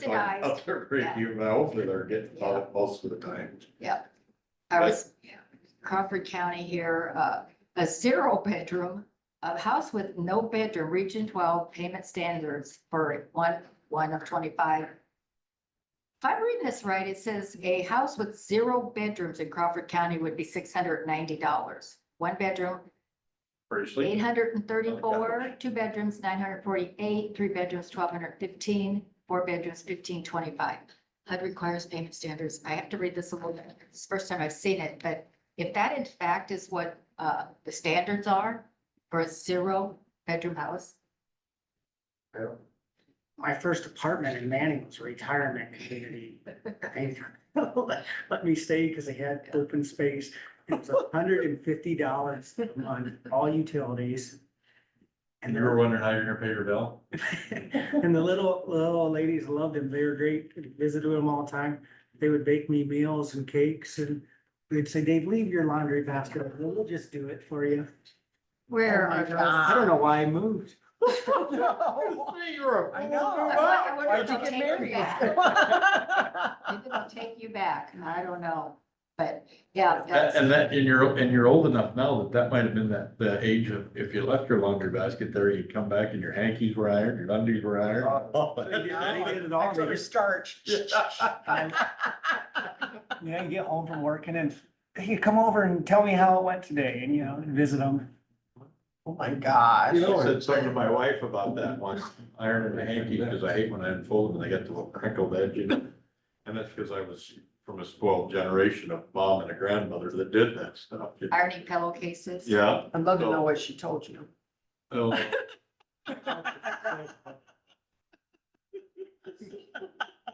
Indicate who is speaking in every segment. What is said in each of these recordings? Speaker 1: Subsidized.
Speaker 2: Up there, great
Speaker 1: Yeah.
Speaker 2: view. Now, hopefully they're getting it most of the time.
Speaker 1: Yep. I was, Crawford County here, uh, a zero bedroom, a house with no bedroom, region twelve payment standards for one, one of twenty-five. If I'm reading this right, it says a house with zero bedrooms in Crawford County would be six hundred ninety dollars. One bedroom,
Speaker 2: Seriously?
Speaker 1: eight hundred and thirty-four, two bedrooms, nine hundred forty-eight, three bedrooms, twelve hundred fifteen, four bedrooms, fifteen twenty-five. HUD requires payment standards. I have to read this a little bit. It's the first time I've seen it, but if that in fact is what uh the standards are for a zero-bedroom house,
Speaker 3: my first apartment in Manning was a retirement community. They Let me stay because they had open space. It was hundred and fifty dollars on all utilities. And
Speaker 4: And
Speaker 3: they
Speaker 4: you were wondering how you're gonna pay your bill?
Speaker 3: and the little, little old ladies loved them. They were great. Visited with them all the time. They would bake me meals and cakes and they'd say, Dave, leave your laundry basket. over. We'll just do it for you.
Speaker 1: where
Speaker 3: Oh my
Speaker 1: are
Speaker 3: gosh, I don't
Speaker 1: those?
Speaker 3: know why I moved.
Speaker 2: You're
Speaker 3: I know.
Speaker 1: I wonder- I wonder
Speaker 2: Why'd
Speaker 1: if
Speaker 2: you
Speaker 1: they'll
Speaker 2: get
Speaker 1: take you
Speaker 2: married?
Speaker 1: back. Maybe they'll take you back. I don't know. But yeah.
Speaker 4: That-
Speaker 1: that's-
Speaker 4: And that, and you're, and you're old enough now that that might have been that, the age of, if you left your laundry basket there, you'd come back and your hankies were ironed, your undies were
Speaker 3: They did- they
Speaker 4: ironed.
Speaker 3: did it all.
Speaker 5: Extra starch.
Speaker 3: And Yeah, you get home from work and then, hey, come over and tell me how it went today and, you know, and visit them.
Speaker 5: Oh my gosh.
Speaker 4: You know, I said something to my wife about that once, ironing the hanky, because I hate when I unfold them and they got the little crinkled edge, you know? And that's because I was from a spoiled generation of mom and a grandmother that did that stuff. you know?
Speaker 1: Ironing pillowcases.
Speaker 4: Yeah.
Speaker 5: I'd love to know what she told you.
Speaker 4: Oh,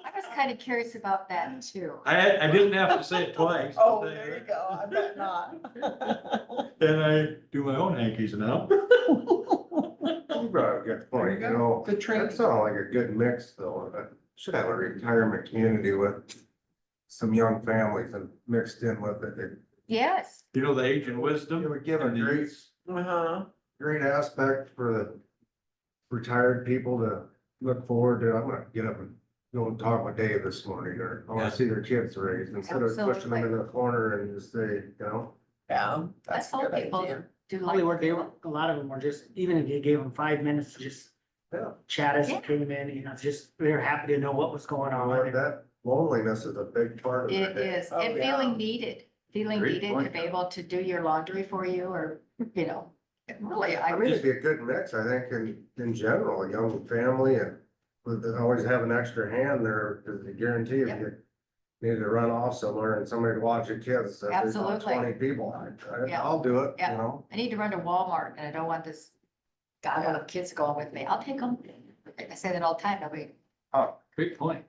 Speaker 1: I was kind of curious about that too.
Speaker 4: I, I didn't have to say it twice.
Speaker 5: Oh, there you go. I bet not.
Speaker 4: Then I do my own hankies now.
Speaker 2: You brought up a good point, you know,
Speaker 5: Good
Speaker 2: that
Speaker 5: training.
Speaker 2: sounds like a good mix though. and it Should have a retirement community with some young families and mixed in with it. It
Speaker 1: Yes.
Speaker 4: You know, the age and wisdom.
Speaker 2: would give a
Speaker 4: And the
Speaker 2: great,
Speaker 4: youth.
Speaker 5: Uh-huh.
Speaker 2: great aspect for the retired people to look forward to. I'm gonna get up and go and talk with Dave this morning or I
Speaker 4: Yeah.
Speaker 2: wanna see their kids raised instead of pushing them in the corner and just say, you know.
Speaker 5: Yeah.
Speaker 1: Let's
Speaker 5: That's a
Speaker 1: hope
Speaker 5: good
Speaker 1: people
Speaker 5: idea.
Speaker 1: do like.
Speaker 3: Probably were, they were, a lot of them were just, even if you gave them five minutes to just
Speaker 2: Yeah.
Speaker 3: chat as they came in, you know, just, they were happy to know what was going
Speaker 2: Like
Speaker 3: on.
Speaker 2: that loneliness is a big part of
Speaker 1: It
Speaker 2: it.
Speaker 1: is,
Speaker 5: Oh,
Speaker 1: and
Speaker 5: yeah.
Speaker 1: feeling needed, feeling
Speaker 4: Great
Speaker 1: needed to
Speaker 4: point.
Speaker 1: be able to do your laundry for you or, you know, really, I
Speaker 2: I mean, it'd
Speaker 1: really,
Speaker 2: be a good mix, I think, in, in general, a young family and with the- always have an extra hand there, because I guarantee if
Speaker 1: Yep.
Speaker 2: you need to run off somewhere and somebody to watch your kids, that there's about
Speaker 1: Absolutely.
Speaker 2: twenty people, I,
Speaker 1: Yeah.
Speaker 2: I'll do it, you
Speaker 1: Yeah.
Speaker 2: know?
Speaker 1: I need to run to Walmart and I don't want this gaggle of kids going with me. I'll take them. I say that all the time, I'll be,
Speaker 4: Great point.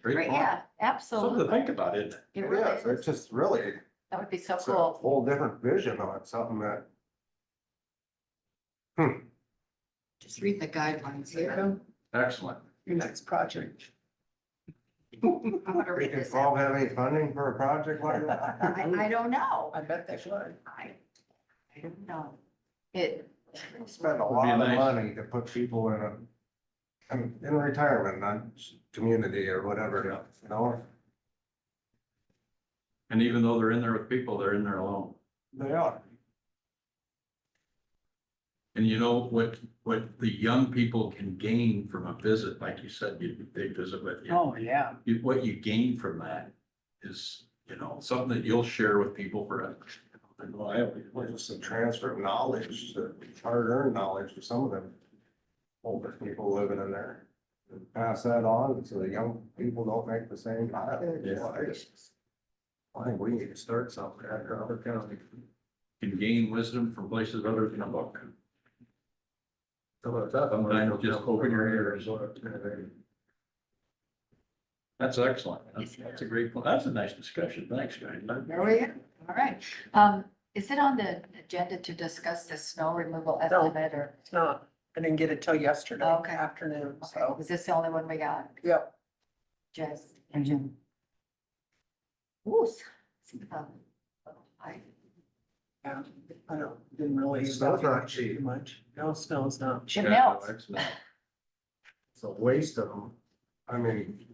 Speaker 1: great,
Speaker 4: Great point.
Speaker 1: yeah,
Speaker 4: Something to
Speaker 1: absolutely.
Speaker 4: think about, isn't it?
Speaker 1: It really
Speaker 2: Yeah, so
Speaker 1: is.
Speaker 2: it's just really,
Speaker 1: That would be so
Speaker 2: it's a
Speaker 1: cool.
Speaker 2: whole different vision on it, something that,
Speaker 1: Just read the guidelines here.
Speaker 5: Your
Speaker 4: Excellent.
Speaker 5: next project.
Speaker 1: I'm gonna
Speaker 2: we
Speaker 1: read
Speaker 2: can
Speaker 1: this. out.
Speaker 2: all have any funding for a project like that.
Speaker 1: I, I don't know.
Speaker 5: I bet they should.
Speaker 1: I, I don't know. It,
Speaker 2: Spend a
Speaker 4: be
Speaker 2: lot of
Speaker 4: nice.
Speaker 2: money to put people in a, in, in retirement, not community or whatever, you know?
Speaker 4: And even though they're in there with people, they're in there alone.
Speaker 2: They are.
Speaker 4: And you know what, what the young people can gain from a visit, like you said, you, they visit with you.
Speaker 3: Oh, yeah.
Speaker 4: You, what you gain from that is, you know, something that you'll share with people for. a-
Speaker 2: Well, I, well, just a transfer of knowledge, hard earned knowledge for some of them. Older people living in there. And Pass that on so the young people don't make the same. mistake.
Speaker 4: Yeah.
Speaker 2: Well, I just- I think we need to start something after other county.
Speaker 4: Can gain wisdom from places other than a book.
Speaker 2: Some of the stuff, I'm
Speaker 4: Sometimes
Speaker 2: gonna-
Speaker 4: just open your ears. That's excellent. That's, that's a great, point. that's a nice discussion. Thanks, guys.
Speaker 1: there we go. All right. Um, is it on the agenda to discuss the snow removal estimate or?
Speaker 5: It's not, I didn't get it till yesterday
Speaker 1: Oh, Okay.
Speaker 5: afternoon,
Speaker 1: Okay,
Speaker 5: so,
Speaker 1: was this the only one we got?
Speaker 5: yep.
Speaker 1: Just,
Speaker 3: Mhm.
Speaker 1: ooh. s- um, I-
Speaker 5: Yeah, I don't, didn't really.
Speaker 2: Snow's not
Speaker 5: evaluate
Speaker 2: cheap.
Speaker 5: too Much. No, snow's not.
Speaker 1: It melts.
Speaker 4: Excellent.
Speaker 2: It's a waste of I mean,